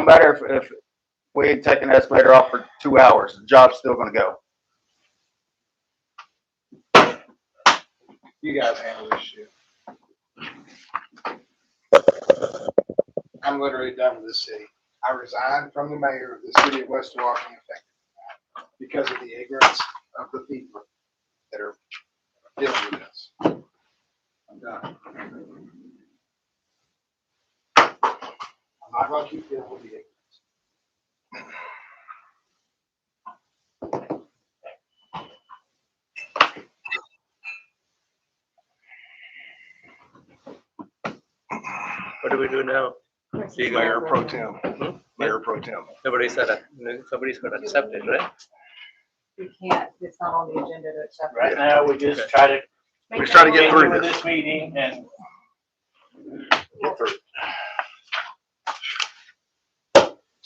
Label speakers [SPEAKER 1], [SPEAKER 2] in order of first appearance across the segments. [SPEAKER 1] No matter if, if we ain't taking the excavator off for two hours, the job's still gonna go.
[SPEAKER 2] You guys handle this shit. I'm literally done with this city. I resigned from the mayor of the city of West Walking effective because of the ignorance of the people that are dealing with this. I'm done. I'm not gonna keep dealing with the ignorance.
[SPEAKER 3] What do we do now? Being
[SPEAKER 2] Mayor
[SPEAKER 3] mayor,
[SPEAKER 2] pro tem, mayor pro tem.
[SPEAKER 3] Somebody said, that- somebody's got to accept it, right?
[SPEAKER 4] We can't, it's not on the agenda to accept.
[SPEAKER 5] Right now, we just try to.
[SPEAKER 1] We're just trying to get through
[SPEAKER 5] with
[SPEAKER 1] this.
[SPEAKER 5] meeting and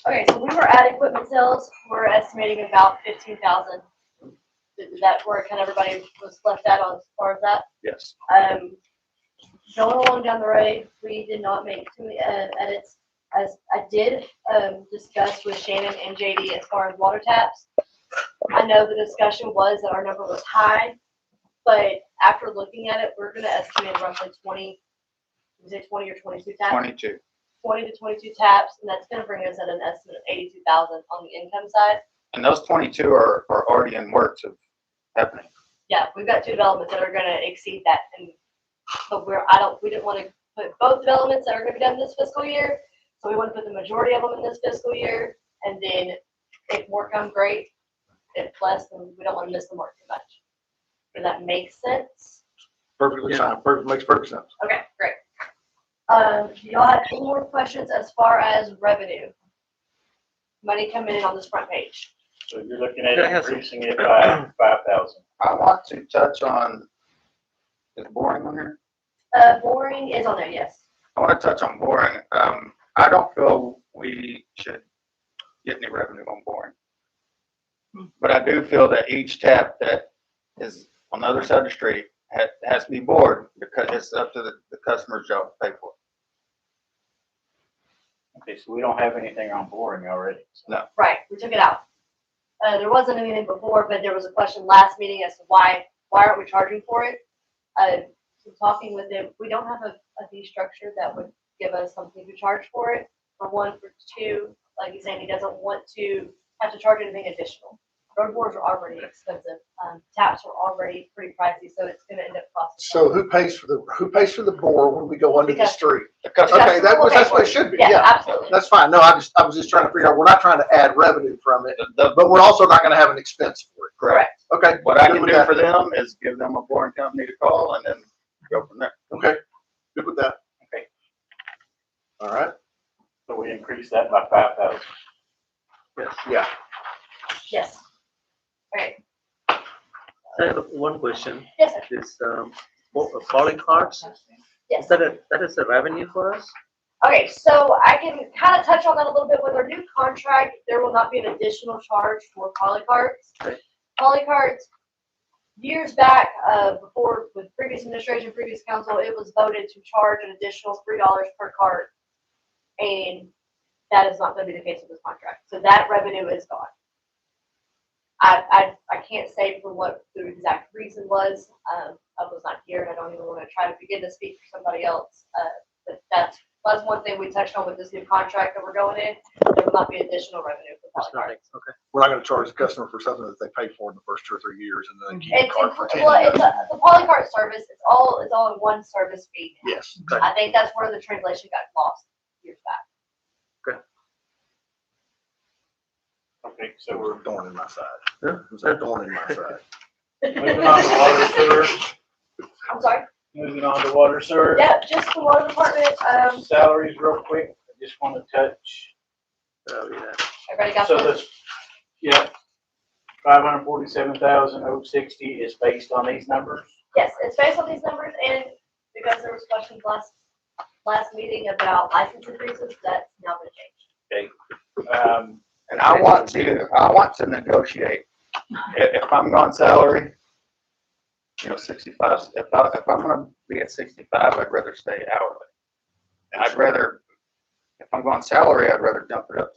[SPEAKER 6] Okay, so we were at equipment sales, we're estimating about fifteen thousand. Is that where kind of everybody was left at on as far as that?
[SPEAKER 1] Yes.
[SPEAKER 6] Um, going along down the road, we did not make too many uh, edits. As I did, um, discuss with Shannon and JD as far as water taps. I know the discussion was that our number was high, but after looking at it, we're gonna estimate roughly twenty, was it twenty or twenty-two taps?
[SPEAKER 1] Twenty-two.
[SPEAKER 6] twenty to twenty-two taps, and that's gonna bring us at an estimate of eighty-two thousand on the income side.
[SPEAKER 1] And those twenty-two are, are already in works of happening.
[SPEAKER 6] Yeah, we've got two developments that are gonna exceed that, and, but we're, I don't, we didn't wanna put both developments that are gonna be done this fiscal year, so we wanna put the majority of them in this fiscal year, and then if more come, great, if less, then we don't wanna miss the mark too much. Does that make sense?
[SPEAKER 1] Perfectly fine, perfect, makes perfect sense.
[SPEAKER 6] Okay, great. Um, do y'all have any more questions as far as revenue? Money coming in on this front page.
[SPEAKER 5] so you're looking at
[SPEAKER 3] Yeah, I have some.
[SPEAKER 5] increasing it by five thousand.
[SPEAKER 1] I want to touch on, is boring on here?
[SPEAKER 6] Uh, boring is on there, yes.
[SPEAKER 1] I want to touch on boring. Um, I don't feel we should get any revenue on boring. But I do feel that each tap that is on the other side of the street has, has to be bored because it's up to the, the customer's job to pay for
[SPEAKER 5] Okay, so we don't have anything on boring already.
[SPEAKER 6] Right, we took it out. Uh, there wasn't anything before, but there was a question last meeting as to why, why aren't we charging for it? Uh, so talking with them, we don't have a, a fee structure that would give us something to charge for it, for one, for two, like he's saying, he doesn't want to have to charge anything additional. Road boards are already expensive, um, taps are already pretty pricey, so it's gonna end up costing.
[SPEAKER 2] So who pays for the, who pays for the bore when we go under the
[SPEAKER 6] Because-
[SPEAKER 2] street?
[SPEAKER 1] it. The customer,
[SPEAKER 2] Okay, that was,
[SPEAKER 6] Okay.
[SPEAKER 2] that's what it should be,
[SPEAKER 6] Yeah,
[SPEAKER 2] yeah.
[SPEAKER 6] absolutely.
[SPEAKER 2] That's fine. No, I just, I was just trying to figure out, we're not trying to add revenue from it,
[SPEAKER 1] the, the,
[SPEAKER 2] but we're also not gonna have an expense for it.
[SPEAKER 1] correct.
[SPEAKER 2] Okay.
[SPEAKER 1] What I
[SPEAKER 2] good
[SPEAKER 1] can
[SPEAKER 2] with
[SPEAKER 1] do
[SPEAKER 2] that.
[SPEAKER 1] for them is give them a boring company to call and then go from there.
[SPEAKER 2] Okay, good with that.
[SPEAKER 5] Okay.
[SPEAKER 2] All right,
[SPEAKER 5] So we increase that by five thousand.
[SPEAKER 2] yeah.
[SPEAKER 6] Yes. Alright,
[SPEAKER 3] I have one question,
[SPEAKER 6] yes, sir.
[SPEAKER 3] this, um, po- calling cards,
[SPEAKER 6] yes.
[SPEAKER 3] is that a, that is a revenue for us?
[SPEAKER 6] Okay, so I can kind of touch on that a little bit. With our new contract, there will not be an additional charge for polycarts.
[SPEAKER 3] Right.
[SPEAKER 6] Polycarts, years back, uh, before, with previous administration, previous council, it was voted to charge an additional three dollars per cart. And that is not gonna be the case with this contract. So that revenue is gone. I, I, I can't say for what the exact reason was. Um, I was not here and I don't even want to try to begin to speak for somebody else. Uh, but that's that's one thing we touched on with this new contract that we're going in, there will not be additional revenue for
[SPEAKER 3] It's
[SPEAKER 6] Polycart.
[SPEAKER 3] nothing, okay.
[SPEAKER 2] We're not gonna charge the customer for something that they paid for in the first two or three years and then keep the
[SPEAKER 6] It's,
[SPEAKER 2] card for
[SPEAKER 6] it's,
[SPEAKER 2] ten
[SPEAKER 6] well, it's
[SPEAKER 2] years.
[SPEAKER 6] a, the Polycart service, it's all, it's all in one service fee.
[SPEAKER 2] Yes.
[SPEAKER 6] I think that's where the translation got lost years back.
[SPEAKER 5] Okay, so
[SPEAKER 2] It
[SPEAKER 5] we're.
[SPEAKER 2] was a thorn in my side.
[SPEAKER 3] Yeah.
[SPEAKER 2] It was a thorn in my side.
[SPEAKER 5] Moving on to water sewer,
[SPEAKER 6] I'm sorry,
[SPEAKER 5] moving on to water sewer.
[SPEAKER 6] yeah, just the water department, um,
[SPEAKER 5] Salaries real quick, I just want to touch.
[SPEAKER 3] So, Oh, yeah.
[SPEAKER 6] everybody got
[SPEAKER 5] So
[SPEAKER 6] this?
[SPEAKER 5] this, yeah, five hundred forty-seven thousand oh sixty is based on these numbers.
[SPEAKER 6] Yes, it's based on these numbers and because there was questions last, last meeting about license increases, that's now been changed.
[SPEAKER 5] Um,
[SPEAKER 1] And I want to, I want to negotiate. If, if I'm on salary, you know, sixty-five, if I, if I'm gonna be at sixty-five, I'd rather stay hourly. And I'd rather If I'm going salary, I'd rather dump it up to